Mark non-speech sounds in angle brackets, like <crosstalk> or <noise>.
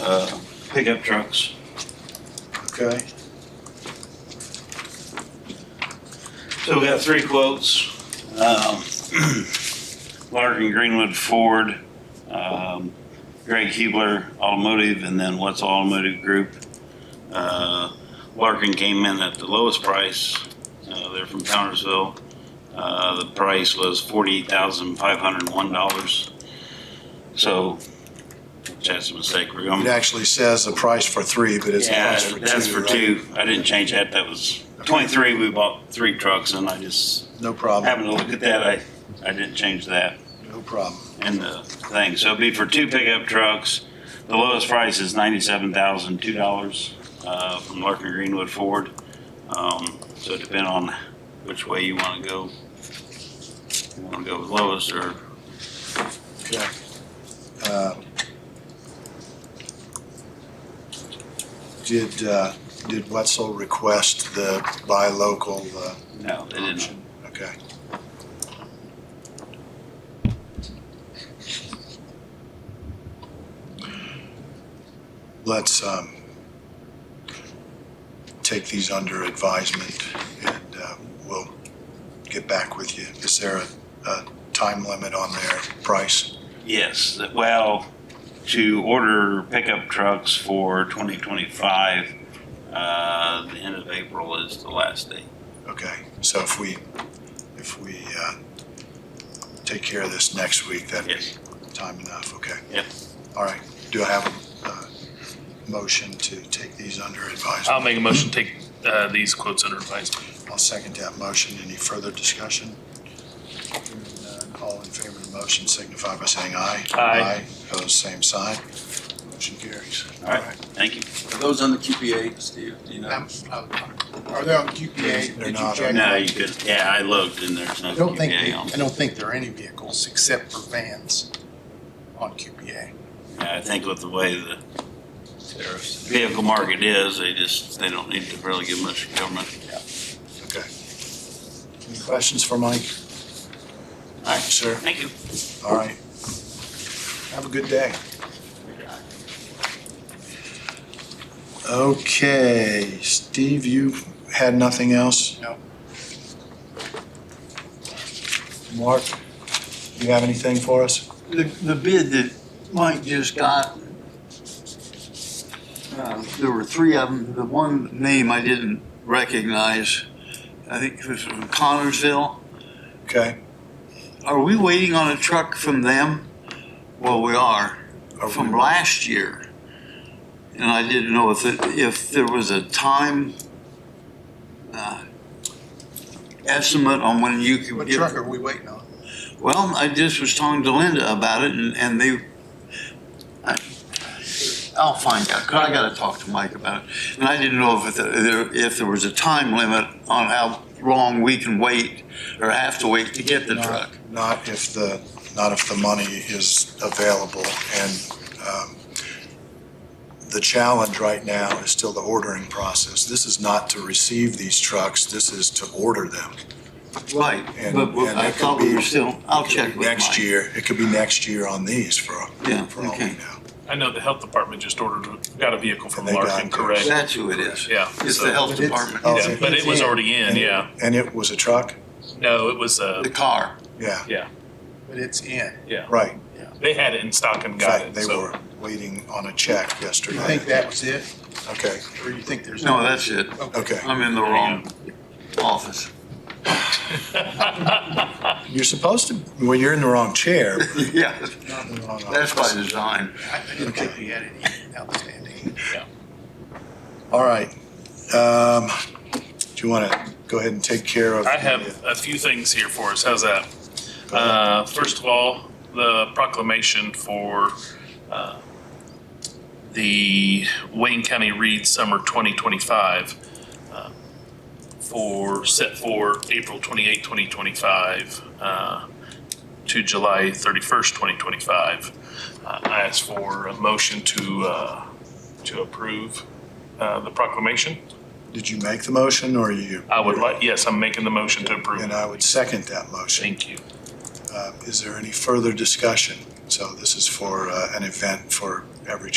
uh, pickup trucks. Okay, So we got three quotes. Um, <clears throat> Larkin Greenwood Ford, um, Greg Hubler Automotive, and then What's Automotive Group. Uh, Larkin came in at the lowest price. Uh, They're from Townersville. Uh, The price was $48,501. So that's a mistake. We're it going, actually says the price for three, but it's a yeah, price for two. that's for right? two. I didn't change that. That was 23. We bought three trucks and I just No problem, Having to look at that, I, I didn't change that no problem. in the thing. So it'd be for two pickup trucks. The lowest price is ninety-seven thousand, two dollars, uh, from Larkin Greenwood Ford. Um, so depending on which way you wanna go. You wanna go with lowest or, Okay. Uh, Did, uh, did Wetzel request the buy local, uh, no, they didn't. option? Okay. Let's, um, take these under advisement and, uh, we'll get back with you. Is there a, a time limit on their price? Yes, that- well, to order pickup trucks for twenty twenty-five, uh, the end of April is the last day. Okay, so if we, if we uh, take care of this next week, that'd be Yes. time enough, okay? Yep. All right, do I have a uh, motion to take these under I'll advisement? make a motion, to take uh, these quotes under advisement. I'll second that motion. Any further discussion? Hearing none, All in favor of the motion signify by saying aye. Aye. Opposed, same sign. Motion carries. All right, thank you. Are those on the QPA, Steve? Do you know? Um, uh, Are they on QPA? They're Did you not. check? No, you could, yeah, I looked and there's uh, I nothing don't think, QPA on. I don't think there are any vehicles except for vans on QPA. I think with the way the Tariffs. vehicle market is, they just, they don't need to really give much government. Okay. Any questions for Mike? Aye. Sir, Thank you. all right. Have a good day. Okay, Steve, you had nothing else? No. Mark, you have anything for us? The, the bid that Mike just got, uh, there were three of them. The one name I didn't recognize, I think it was from Connersville. Okay, Are we waiting on a truck from them? Well, we are, Are we- from last year. And I didn't know if, it- if there was a time uh, estimate on when you could What get truck are we waiting on? well, I just was talking to Linda about it and, and they, I, I'll find out, 'cause I gotta talk to Mike about it. And I didn't know if there, if there was a time limit on how long we can wait or have to wait to get the No. truck. not if the, not if the money is available. And um, the challenge right now is still the ordering process. This is not to receive these trucks, this is to order them. Right, And- but but and I it could thought we be- were still, I'll It could check be with Mike. Next year, it could be next year on these for, Yeah, for all we know. okay. I know the health department just ordered, got a vehicle from And they got Larkin, it. correct? That's who it is. Yeah. It's so- the health But it's- department, oh. Yeah, but it was already in, And- yeah. And it was a truck? No, it was, uh, the car. Yeah, But it's in. right. they had it in stock and In got fact, it, they so. were waiting on a check Do yesterday. you think that was it? Okay, Or you think there's? No, that's it. okay. I'm in the wrong office. <laughs> You're supposed to, when you're in the wrong chair. but Yeah, not in the wrong that's by office. design. I I didn't think we had any outstanding. All right. Um, Do you want to go ahead and take care of? I the- have a few things here for us, how's that? Uh, first of all, the proclamation for, uh, the Wayne County Reed Summer twenty twenty-five uh, for, set for April twenty-eight, twenty twenty-five, uh, to July thirty-first, twenty twenty-five. Uh, I ask for a motion to, uh, to approve, uh, the proclamation. Did you make the motion or you? I would like, yes, I'm making the motion to approve. And I would second that motion. Thank you. Uh, Is there any further discussion? So this is for uh, an event for every